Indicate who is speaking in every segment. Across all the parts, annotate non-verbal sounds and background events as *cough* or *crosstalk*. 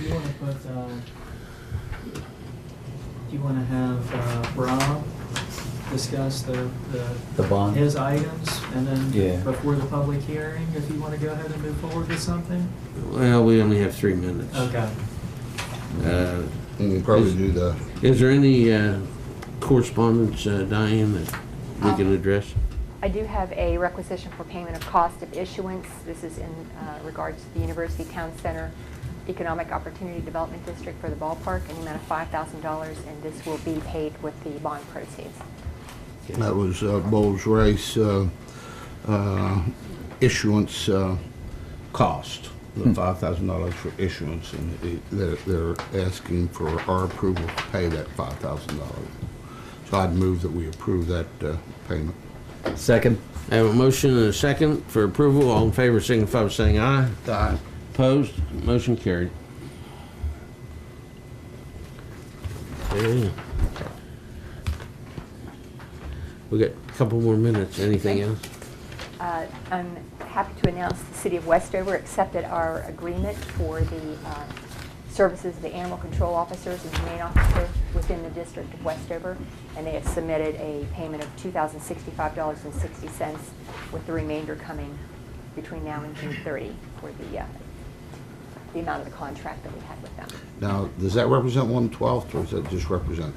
Speaker 1: you wanna put, uh, do you wanna have, uh, Rob discuss the, the,
Speaker 2: The bond?
Speaker 1: his items? And
Speaker 2: Yeah.
Speaker 1: then before the public hearing, if you wanna go ahead and move forward with something?
Speaker 3: Well, we only have three minutes.
Speaker 1: Okay.
Speaker 3: Uh,
Speaker 4: You can probably do that.
Speaker 3: Is there any uh, correspondence, uh, Diane, that we can
Speaker 5: Um,
Speaker 3: address?
Speaker 5: I do have a requisition for payment of cost of issuance. This is in uh, regards to the University Town Center Economic Opportunity Development District for the ballpark, an amount of $5,000, and this will be paid with the bond proceeds.
Speaker 4: That was uh, Bowles Rice uh, uh, issuance uh, cost, the five thousand dollars for issuance, and it- they're, they're asking for our approval to pay that five thousand dollars. So I'd move that we approve that uh, payment.
Speaker 2: Second?
Speaker 3: I have a motion and a second for approval. All in favor, signify by saying aye.
Speaker 4: Aye.
Speaker 3: Opposed? Motion carried. Okay. We got a couple more minutes. Anything else?
Speaker 5: Uh, I'm happy to announce the City of Westover accepted our agreement for the uh, services of the animal control officers and humane officer within the district of Westover, and they have submitted a payment of $2,065.60, with the remainder coming between now and June 30 for the, uh, the amount of the contract that we had with them.
Speaker 4: Now, does that represent one twelfth, or does that just represent?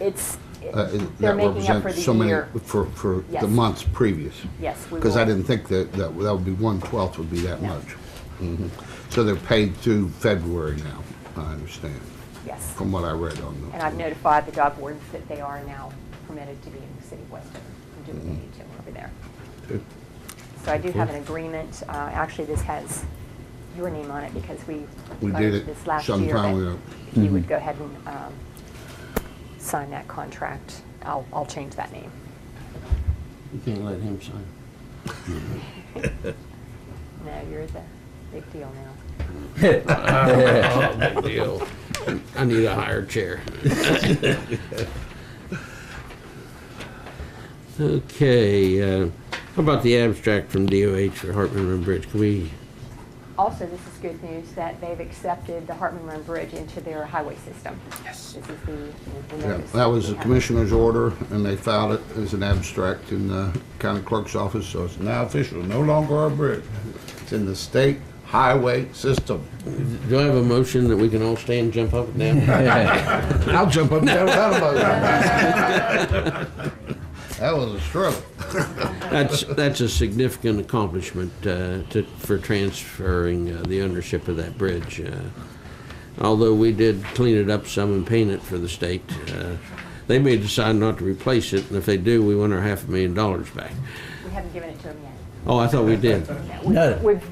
Speaker 5: It's,
Speaker 4: uh, is-
Speaker 5: they're
Speaker 4: that
Speaker 5: making up for
Speaker 4: represents
Speaker 5: the
Speaker 4: so many-
Speaker 5: year.
Speaker 4: For, for the
Speaker 5: Yes.
Speaker 4: months previous?
Speaker 5: Yes, we
Speaker 4: Because I
Speaker 5: will.
Speaker 4: didn't think that, that that would be one-twelfth would be that
Speaker 5: No.
Speaker 4: much. Mhm. So they're paid through February now, I understand,
Speaker 5: Yes.
Speaker 4: from what I read on the.
Speaker 5: And I've notified the dog wardens that they are now permitted to be in the city of Westover and do what they need to over there.
Speaker 4: Good.
Speaker 5: So I do have an agreement, uh, actually, this has your name on it because we
Speaker 4: We
Speaker 5: voted
Speaker 4: did it
Speaker 5: this last
Speaker 4: some
Speaker 5: year.
Speaker 4: time
Speaker 5: but
Speaker 4: ago. Mm-hmm.
Speaker 5: If you would go ahead and um, sign that contract, I'll, I'll change that name.
Speaker 3: You can't let him sign.
Speaker 5: No, you're the big deal now.
Speaker 3: Big deal. I need a higher chair. Okay, uh, how about the abstract from DOH for Hartman Room Bridge? Can we,
Speaker 5: Also, this is good news that they've accepted the Hartman Run Bridge into their highway system. Yes. This is the- the.
Speaker 4: Yeah,
Speaker 5: notice
Speaker 4: That was
Speaker 5: we
Speaker 4: the
Speaker 5: have.
Speaker 4: commissioner's order, and they filed it as an abstract in the county clerk's office, so it's now official, no longer our bridge. It's in the state highway system.
Speaker 3: do I have a motion that we can all stand, jump up and down?
Speaker 4: I'll jump up and down without a motion.
Speaker 5: *laughs*
Speaker 4: That was a struggle.
Speaker 3: That's, that's a significant accomplishment uh, to, for transferring uh, the ownership of that bridge. uh, Although we did clean it up some and paint it for the state, uh, they may decide not to replace it, and if they do, we want our half a million dollars back.
Speaker 5: We haven't given it to them yet.
Speaker 3: Oh, I thought we did.
Speaker 5: We-
Speaker 2: No.
Speaker 5: We've, we've
Speaker 2: *laughs*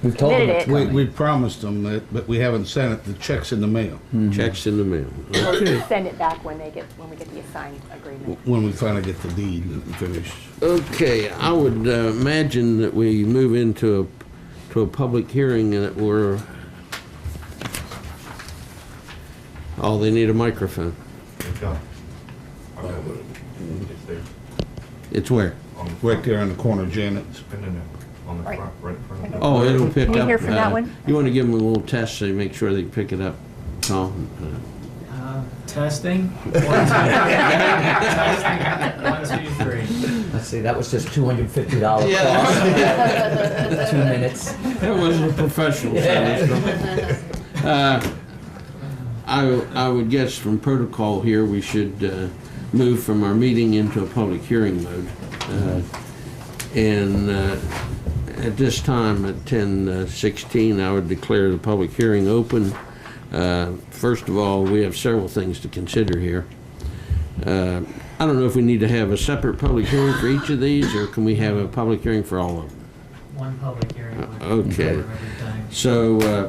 Speaker 2: We've told them
Speaker 5: Submitted
Speaker 2: it's
Speaker 5: it.
Speaker 4: We,
Speaker 2: coming.
Speaker 4: we promised them that, but we haven't sent it, the check's in the mail,
Speaker 3: Checks in the mail.
Speaker 5: We'll send it back when they get, when we get the assigned agreement.
Speaker 4: when we finally get the deed and finish.
Speaker 3: Okay, I would uh, imagine that we move into a, to a public hearing and that we're, oh, they need a microphone. It's where?
Speaker 4: Right there on the corner, Janet's.
Speaker 6: On the
Speaker 5: Right.
Speaker 6: front, right in front of
Speaker 3: Oh, it'll pick up.
Speaker 5: Can you hear from that
Speaker 3: uh,
Speaker 5: one?
Speaker 3: You want to give them a little test so you make sure they pick it up, Tom?
Speaker 1: Uh, Testing? One, two, testing. One, two, three.
Speaker 2: Let's see, that was just two hundred and fifty dollars cost, two minutes.
Speaker 3: That wasn't a professional service. Uh, I, I would guess from protocol here, we should uh, move from our meeting into a public hearing mode. Uh, And uh, at this time, at 10:16, I would declare the public hearing open. Uh, First of all, we have several things to consider here. Uh, I don't know if we need to have a separate public hearing for each of these, or can we have a public hearing for all of them?
Speaker 1: One public hearing. one
Speaker 3: Okay.
Speaker 1: over every time.
Speaker 3: So, uh,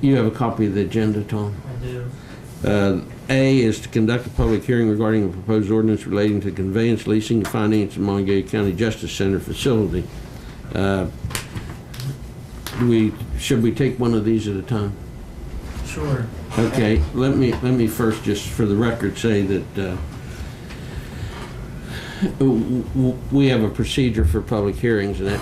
Speaker 3: you have a copy of the agenda, Tom?
Speaker 1: I do.
Speaker 3: Uh, A is to conduct a public hearing regarding a proposed ordinance relating to conveyance, leasing, and finance of Montague County Justice Center facility. Uh, do we, should we take one of these at a time?
Speaker 1: Sure.
Speaker 3: Okay, let me, let me first, just for the record, say that uh, w- w- we have a procedure for public hearings, and that